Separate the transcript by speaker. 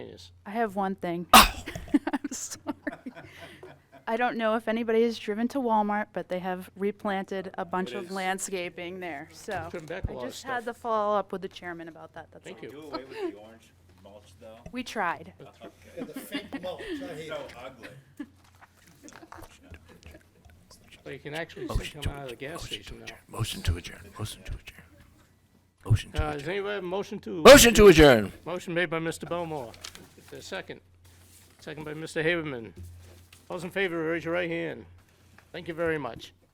Speaker 1: Yes.
Speaker 2: I have one thing.
Speaker 1: Oh.
Speaker 2: I'm sorry. I don't know if anybody has driven to Walmart, but they have replanted a bunch of landscaping there, so.
Speaker 1: Trimmed back a lot
Speaker 2: I
Speaker 1: of
Speaker 2: just had
Speaker 1: stuff.
Speaker 2: the follow-up with the chairman about that, that's all.
Speaker 1: Thank you.
Speaker 3: Do away with the orange mulch though.
Speaker 2: We tried.
Speaker 4: And the fake mulch, I hate
Speaker 3: So
Speaker 4: it.
Speaker 3: ugly.
Speaker 1: So you can actually see
Speaker 5: Motion
Speaker 1: them
Speaker 5: to
Speaker 1: out of the
Speaker 5: adjourn.
Speaker 1: gas
Speaker 5: Motion to
Speaker 1: station now.
Speaker 5: adjourn. Motion to adjourn. Motion to adjourn. Motion to
Speaker 1: Uh,
Speaker 5: adjourn.
Speaker 1: does anybody have a motion to?
Speaker 5: Motion to adjourn.
Speaker 1: Motion made by Mr. Belmore. Is there a second? Second by Mr. Haberman. Those in favor, raise your right hand. Thank you very much.